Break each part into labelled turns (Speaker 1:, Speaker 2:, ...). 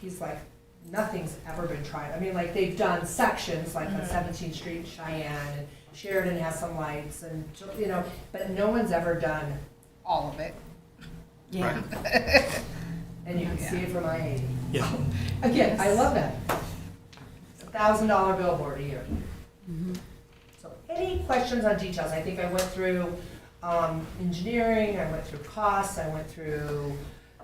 Speaker 1: he's like, nothing's ever been tried. I mean, like, they've done sections, like on
Speaker 2: Mhm.
Speaker 1: Seventeenth Street, Cheyenne, and Sheridan has some lights, and, you know, but no one's ever done all of it,
Speaker 2: Yeah.
Speaker 1: and you can see it from I eighty.
Speaker 3: Yeah.
Speaker 1: Again, I love that. It's a thousand dollar billboard a year. So any questions on details? I think I went through um, engineering, I went through costs, I went through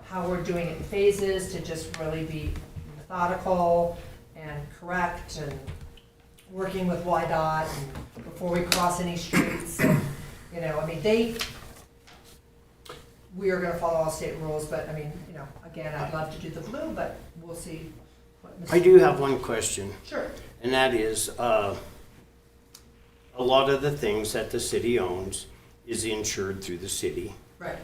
Speaker 1: how we're doing it in phases to just really be methodical and correct and working with YDOT and before we cross any streets. and, You know, I mean, they, we are gonna follow all state rules, but I mean, you know, again, I'd love to do the blue, but we'll see what. Mr.
Speaker 3: I do have one question,
Speaker 1: Sure.
Speaker 3: and that is, uh, a lot of the things that the city owns is insured through the city,
Speaker 1: Right.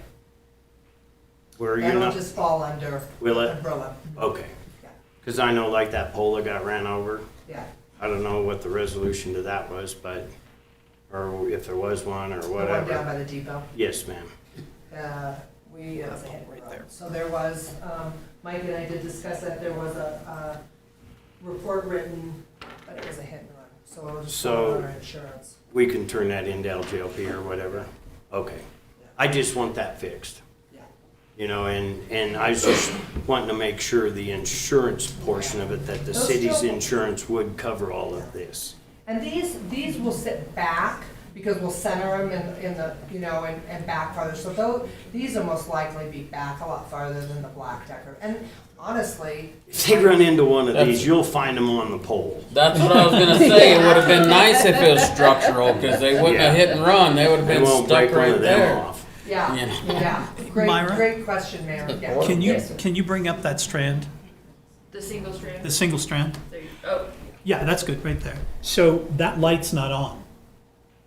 Speaker 3: where you're
Speaker 1: That'll
Speaker 3: not,
Speaker 1: just fall under
Speaker 3: will it?
Speaker 1: umbrella.
Speaker 3: Okay.
Speaker 1: Yeah.
Speaker 3: Because I know like that pole that got ran over,
Speaker 1: Yeah.
Speaker 3: I don't know what the resolution to that was, but, or if there was one or
Speaker 1: The one down
Speaker 3: whatever.
Speaker 1: by the depot.
Speaker 3: Yes, ma'am.
Speaker 1: Uh, We, it was a hit and
Speaker 4: Right
Speaker 1: run.
Speaker 4: there.
Speaker 1: So there was, um, Mike and I did discuss that, there was a uh, report written, but it was a hit and run. So it was just
Speaker 3: So-
Speaker 1: on our insurance.
Speaker 3: We can turn that into LJLP or whatever. Okay. I just want that fixed.
Speaker 1: Yeah.
Speaker 3: You know, and, and I was just wanting to make sure the insurance portion of it, that the
Speaker 1: Those
Speaker 3: city's
Speaker 1: still-
Speaker 3: insurance would cover all of this.
Speaker 1: And these, these will sit back because we'll center them in, in the, you know, and, and back farther. So those, these will most likely be back a lot farther than the black decker. And honestly,
Speaker 3: If they run into one of
Speaker 5: That's-
Speaker 3: these, you'll find them on the pole.
Speaker 5: That's what I was gonna say. It would have been nice if it was structural, because they wouldn't have hit and run. They would have
Speaker 3: They
Speaker 5: been
Speaker 3: won't break
Speaker 5: stuck
Speaker 3: one
Speaker 5: right
Speaker 3: of them
Speaker 5: there.
Speaker 3: off.
Speaker 1: yeah,
Speaker 5: Yeah.
Speaker 1: yeah. Great,
Speaker 6: Myra?
Speaker 1: great question, Mayor. Yeah.
Speaker 6: Can you,
Speaker 1: Yes.
Speaker 6: can you bring up that strand,
Speaker 2: The single strand.
Speaker 6: the single strand?
Speaker 2: There you- Oh,
Speaker 6: Yeah, that's good, right there. So that light's not on.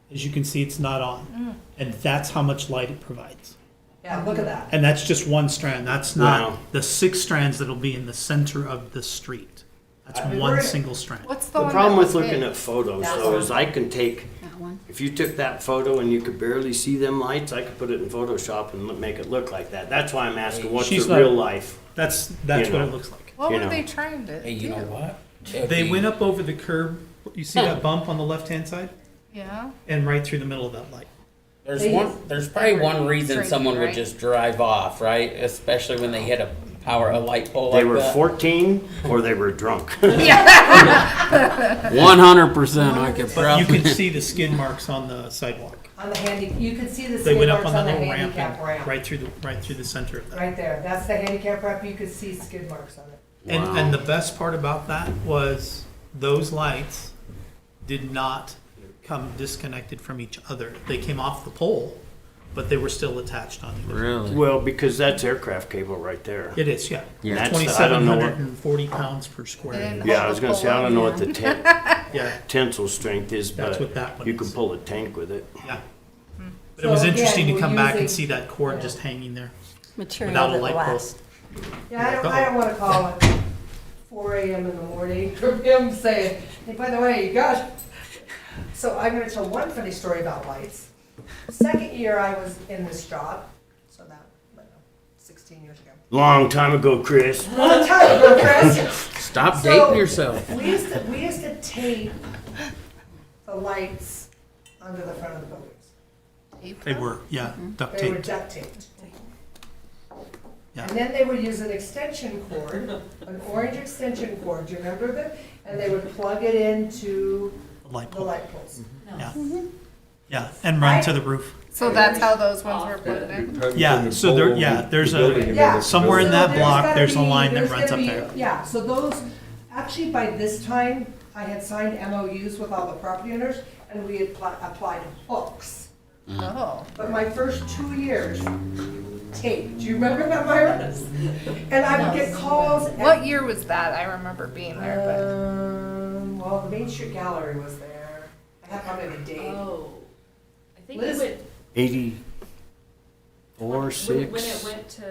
Speaker 6: As you can see, it's not
Speaker 2: Mm.
Speaker 6: on. And that's how much light it provides.
Speaker 1: Yeah, look at that.
Speaker 6: And that's just one strand, that's
Speaker 3: Wow.
Speaker 6: not the six strands that'll be in the center of the street. That's
Speaker 1: I-
Speaker 6: one single strand.
Speaker 7: What's the,
Speaker 3: The
Speaker 7: one
Speaker 3: problem
Speaker 7: that was
Speaker 3: with looking
Speaker 7: big?
Speaker 3: at photos
Speaker 1: That
Speaker 3: though
Speaker 1: one.
Speaker 3: is I can take,
Speaker 7: That one.
Speaker 3: if you took that photo and you could barely see them lights, I could put it in Photoshop and look- make it look like that. That's why I'm asking, what's
Speaker 6: She's
Speaker 3: the
Speaker 6: not-
Speaker 3: real life?
Speaker 6: That's, that's
Speaker 3: You
Speaker 6: what
Speaker 3: know.
Speaker 6: it looks like.
Speaker 7: What
Speaker 3: you
Speaker 7: were
Speaker 3: know.
Speaker 7: they trying to
Speaker 5: Hey, you
Speaker 7: do?
Speaker 5: know what?
Speaker 6: They went up over the curb, you see that bump on the left-hand side?
Speaker 7: Yeah.
Speaker 6: And right through the middle of that light.
Speaker 5: There's
Speaker 1: They
Speaker 5: one.
Speaker 1: just-
Speaker 5: There's probably one reason
Speaker 7: Tricky,
Speaker 5: someone would
Speaker 7: right?
Speaker 5: just drive off, right? Especially when they hit a power, a light pole
Speaker 3: They
Speaker 5: like
Speaker 3: were
Speaker 5: that.
Speaker 3: fourteen or they were drunk.
Speaker 5: One hundred percent, I could
Speaker 6: But you
Speaker 5: probably.
Speaker 6: can see the skin marks on the sidewalk.
Speaker 1: On the handy, you can see the
Speaker 6: They
Speaker 1: skid
Speaker 6: went up
Speaker 1: marks
Speaker 6: on the
Speaker 1: on the
Speaker 6: little ramp,
Speaker 1: handicap
Speaker 6: and
Speaker 1: ramp.
Speaker 6: right through the, right through the center of that.
Speaker 1: Right there, that's the handicap ramp, you could see skid marks on it.
Speaker 6: And,
Speaker 3: Wow.
Speaker 6: and the best part about that was those lights did not come disconnected from each other. They came off the pole, but they were still attached on the
Speaker 5: Really?
Speaker 3: Well, because that's aircraft cable right there.
Speaker 6: It is, yeah.
Speaker 5: Yeah.
Speaker 3: That's the- I don't
Speaker 6: Twenty-seven
Speaker 3: know what-
Speaker 6: hundred and forty pounds per square.
Speaker 7: They didn't
Speaker 3: Yeah, I
Speaker 7: hold
Speaker 3: was
Speaker 7: the
Speaker 3: gonna say,
Speaker 7: pole
Speaker 3: I don't know
Speaker 7: up.
Speaker 3: what the ten-
Speaker 6: Yeah,
Speaker 3: tensile strength is,
Speaker 6: that's what
Speaker 3: but
Speaker 6: that one
Speaker 3: you can
Speaker 6: is.
Speaker 3: pull a tank with it.
Speaker 6: Yeah. But it was
Speaker 1: So again,
Speaker 6: interesting to
Speaker 1: we're
Speaker 6: come back and
Speaker 1: using-
Speaker 6: see that cord
Speaker 1: yeah.
Speaker 6: just hanging there
Speaker 8: material
Speaker 6: without a
Speaker 8: that
Speaker 6: light pole.
Speaker 8: lasts.
Speaker 1: Yeah, I don't, I don't wanna call it four AM in the morning, for him saying, hey, by the way, you got. So I'm gonna tell one funny story about lights. Second year I was in this job, so that, I don't know, sixteen years ago.
Speaker 3: Long time ago, Chris.
Speaker 1: Long time ago, Chris.
Speaker 5: Stop
Speaker 1: So-
Speaker 5: dating yourself.
Speaker 1: We used to, we used to tape the lights under the front of the buildings.
Speaker 6: They were, yeah, duct
Speaker 1: Mm-hmm. They were
Speaker 6: taped.
Speaker 1: duct taped.
Speaker 6: Yeah.
Speaker 1: And then they would use an extension cord, an orange extension cord, do you remember that? And they would plug it into
Speaker 6: light
Speaker 1: the
Speaker 6: pole,
Speaker 1: light poles.
Speaker 6: yeah. Yeah, and run to the roof.
Speaker 7: So that's how those ones were put in.
Speaker 6: Yeah, so there, yeah, there's a,
Speaker 1: Yeah.
Speaker 6: somewhere in
Speaker 1: So
Speaker 6: that block,
Speaker 1: gotta
Speaker 6: there's a
Speaker 1: be-
Speaker 6: line that
Speaker 1: there's
Speaker 6: runs
Speaker 1: gonna
Speaker 6: up
Speaker 1: be-
Speaker 6: there.
Speaker 1: Yeah, so those, actually by this time, I had signed MOUs with all the property owners and we had pl- applied hooks.
Speaker 7: Oh.
Speaker 1: But my first two years, tape, do you remember that, Myra? And I would get calls. and-
Speaker 7: What year was that? I remember being there,
Speaker 1: Um, well, the Main Street Gallery was there. I have probably the date.
Speaker 2: oh. I think
Speaker 1: Liz-
Speaker 2: it went,
Speaker 3: Eighty-four,
Speaker 2: when, when it
Speaker 3: six.
Speaker 2: went to,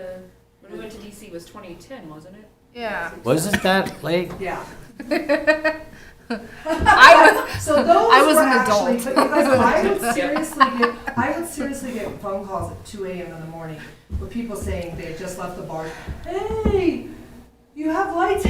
Speaker 2: when it went to DC was twenty ten, wasn't it?
Speaker 7: but yeah.
Speaker 5: Wasn't that late?
Speaker 1: Yeah.
Speaker 7: I was.
Speaker 1: So those
Speaker 7: I was
Speaker 1: were
Speaker 7: an
Speaker 1: actually,
Speaker 7: adult.
Speaker 1: but because I would seriously get, I would seriously get phone calls at two AM in the morning with people saying they had just left the bar. Hey, you have lights